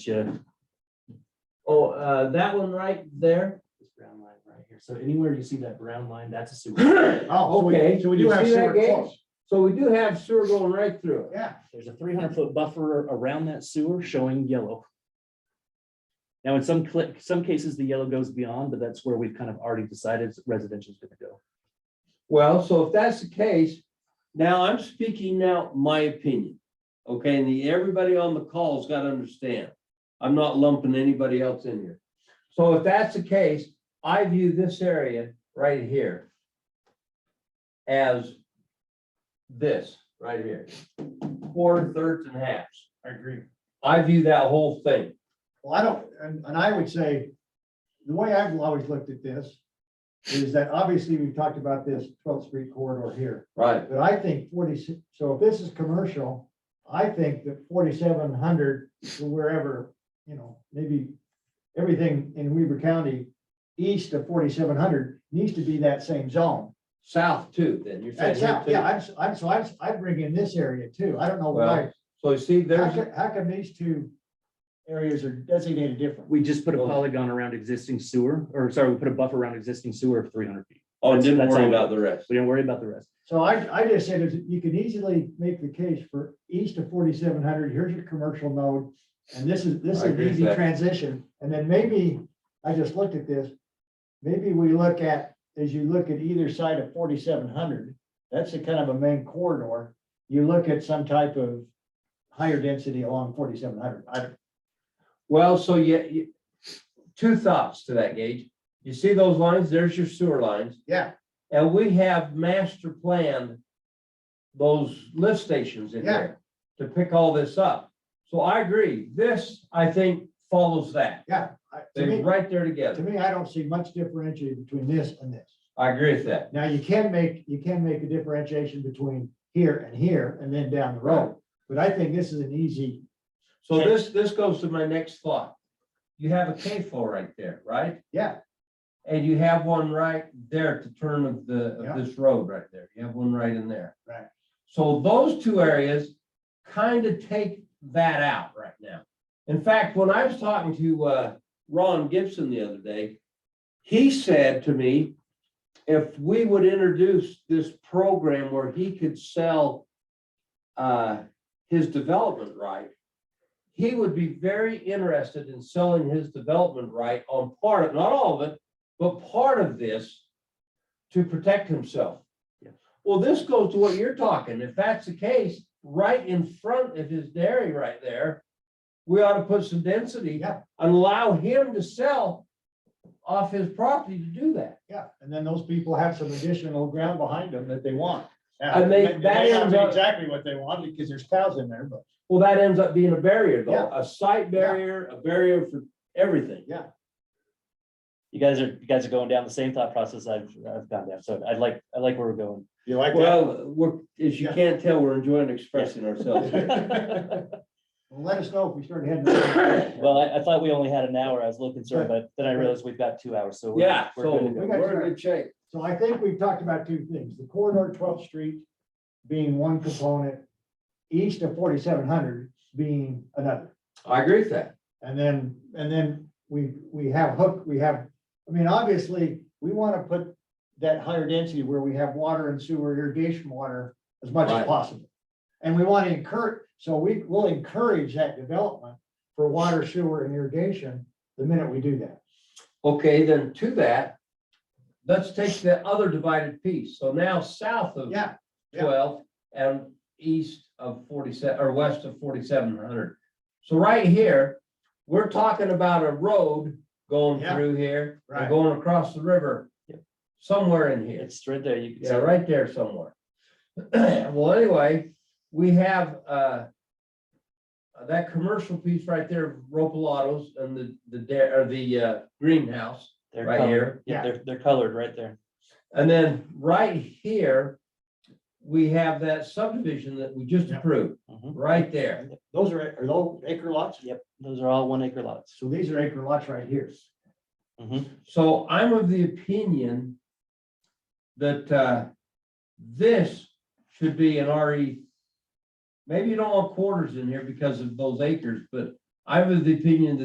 Yeah. Oh, uh, that one right there. This brown line right here. So anywhere you see that brown line, that's a sewer. Oh, okay, so we do You have see that sewer gate? close. So we do have sewer going right through it. Yeah, There's a three hundred foot buffer around that sewer showing yellow. Now, in some click, some cases, the yellow goes beyond, but that's where we've kind of already decided residential is gonna go. Well, so if that's the case, now I'm speaking now my opinion. Okay, and the, everybody on the call's got to understand. I'm not lumping anybody else in here. So if that's the case, I view this area right here as this right here, quarter, thirds and halves. I agree. I view that whole thing. Well, I don't, and, and I would say, the way I've always looked at this is that obviously we've talked about this twelfth street corridor here, Right. but I think forty, so if this is commercial, I think that forty-seven hundred to wherever, you know, maybe everything in Weaver County east of forty-seven hundred needs to be that same zone. South too, then you're saying That's here out, yeah, too. I'm, s- I'm, so I'm, s- I bring in this area too. I don't know why. Well, So you see, How there's, come, how come these two areas are designated different? We just put a Oh. Well- polygon around existing sewer, or sorry, we put a buffer around existing sewer of three hundred feet. oh, That's- didn't that's worry all. about the rest. We don't worry about the rest. So I, I just said, is you can easily make the case for east of forty-seven hundred, here's your commercial node. And this is, this is I an agree with easy that. transition. And then maybe, I just looked at this. Maybe we look at, as you look at either side of forty-seven hundred, that's a kind of a main corridor. You look at some type of higher density along forty-seven hundred. I, Well, so you, you- two thoughts to that, Gage. You see those lines? There's your sewer lines. Yeah. And we have master planned those lift stations in Yeah. there to pick all this up. So I agree. This, I think, follows that. Yeah, I- to They're me, right there to together. me, I don't see much differentiating between this and this. I agree with that. Now, you can make, you can make a differentiation between here and here and then down the road. But I think this is an easy, So this, this goes to my next thought. You have a K flow right there, right? yeah, And you have one right there at the turn of the, Yeah. of this road right there. You have one right in there. Right. So those two areas kind of take that out right now. In fact, when I was talking to, uh, Ron Gibson the other day, he said to me, if we would introduce this program where he could sell, uh, his development right, he would be very interested in selling his development right on part of, not all of it, but part of this to protect himself. Yes. Well, this goes to what you're talking. If that's the case, right in front of his dairy right there, we ought to put some density Yeah. and allow him to sell off his property to do that. yeah. And then those people have some additional ground behind them that they want. Yeah, And they- may that not be ends up- Exactly what they want because there's cows in there, but Well, that ends up being a barrier though, Yeah. a site barrier, a barrier for everything. You guys are, you guys are going down the same thought process I've, I've gone down. So I like, I like where we're going. you like that? Well, we're, as you Yeah. can't tell, we're enjoying expressing ourselves here. Well, Let us know if we start heading. We Well, I, I thought we only had an hour. I was a little concerned, but then I realized we've got two hours, so. we're- Yeah, we're good to so go. got we're time. in good shape. So I think we've talked about two things, the corridor twelfth street being one component, east of forty-seven hundred being another. I agree with that. And then, and then we, we have hook, we have, I mean, obviously, we want to put that higher density where we have water and sewer irrigation water as much as Right. possible. And we want to encourage, so we will encourage that development for water, sewer and irrigation the minute we do that. Okay, then to that, let's take the other divided piece. So now south of Yeah, yeah. twelve and east of forty-seven, or west of forty-seven hundred. So right here, we're talking about a road going Yeah. through here, and Right. going across the river, somewhere in here. It's straight there. You can Yeah, see right there somewhere. Well, anyway, we have, uh, that commercial piece right there, Ropalatos and the, the, da- or the, uh, greenhouse they're right colored. here. Yeah, they're, they're colored right there. And then right here, we have that subdivision that we just Yeah. approved, Mhm. right there. Those are, are those acre lots? Yep, those are all one acre lots. So these are acre lots right here. So I'm of the opinion that, uh, this E, should be an RE. Maybe you don't want quarters in here because of those acres, but I'm of the opinion that